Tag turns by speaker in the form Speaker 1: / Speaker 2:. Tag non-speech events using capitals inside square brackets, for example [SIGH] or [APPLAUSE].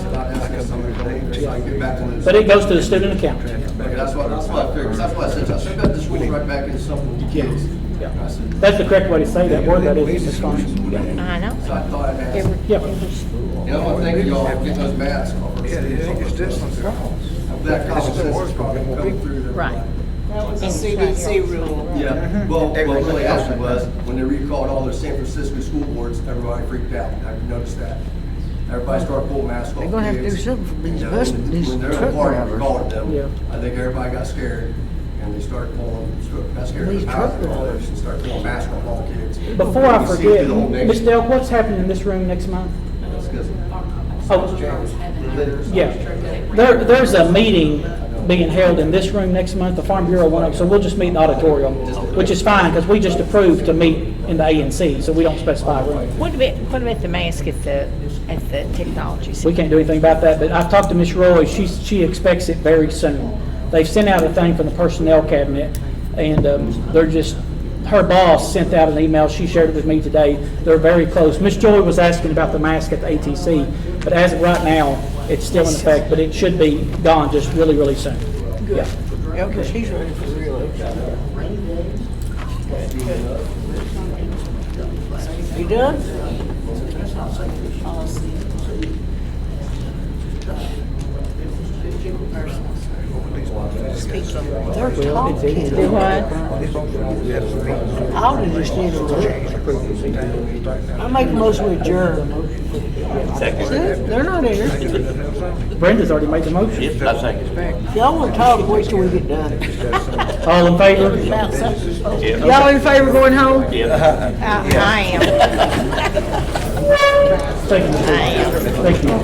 Speaker 1: somebody to take, so I can get back to those.
Speaker 2: But it goes to the student account.
Speaker 1: Okay, That's what, that's what I figured, 'cause that's what I said, I said, "Got this one right back in something, kids. I said,
Speaker 2: That's the correct way to say that word, that is discussion.
Speaker 3: I know.
Speaker 1: So I thought I'd ask,
Speaker 3: It-
Speaker 2: Yeah.
Speaker 3: it was-
Speaker 1: you know, I think y'all will get those masks off. That common sense is probably gonna come through. there.
Speaker 3: Right.
Speaker 4: A CDC rule.
Speaker 5: [LAUGHS]
Speaker 1: Yeah, well, what really happened was, when they recalled all their San Francisco school boards, everybody freaked out, I've noticed that. Everybody started pulling masks off.
Speaker 5: They're gonna have to do
Speaker 1: kids.
Speaker 5: something for these
Speaker 1: You know,
Speaker 5: bus-
Speaker 1: when-
Speaker 5: these
Speaker 1: When they're
Speaker 5: truck
Speaker 1: at party,
Speaker 5: drivers.
Speaker 1: recalled
Speaker 2: Yeah.
Speaker 1: them, I think everybody got scared, and they started pulling, started- got scared of
Speaker 5: These
Speaker 1: the powers
Speaker 5: truck
Speaker 1: and all
Speaker 5: drivers.
Speaker 1: this, and started pulling masks off all kids.
Speaker 2: Before I
Speaker 1: You see it
Speaker 2: forget,
Speaker 1: through the whole
Speaker 2: Ms.
Speaker 1: nation.
Speaker 2: Dell, what's happening in this room next month?
Speaker 1: That's 'cause-
Speaker 2: Oh. Yeah. There, there's a meeting being held in this room next month, the Farm Bureau one, of them, so we'll just meet in the auditorium, which is fine, because we just approved to meet in the A and C, so we don't specify a room.
Speaker 3: What about, what about the mask at the, at the technology
Speaker 2: We
Speaker 3: center?
Speaker 2: can't do anything about that, but I've talked to Ms. Roy, she, she expects it very soon. They've sent out a thing from the personnel cabinet, and um, they're just, her boss sent out an email, she shared it with me today, they're very close. Ms. Joy was asking about the mask at the ATC, but as of right now, it's still in effect, but it should be gone just really, really soon. Yeah.
Speaker 5: Yeah, because he's running for reelection. You done? They're talking. I'll just need a I make a motion with adjourn. See, They're not here.
Speaker 2: Brenda's already made the motion.
Speaker 6: I think
Speaker 5: Y'all want to talk, wait till we get done.
Speaker 2: All in favor?
Speaker 3: About something.
Speaker 5: Y'all in favor going home?
Speaker 3: I I am,
Speaker 2: Thank you.
Speaker 3: I am.
Speaker 2: Thank you.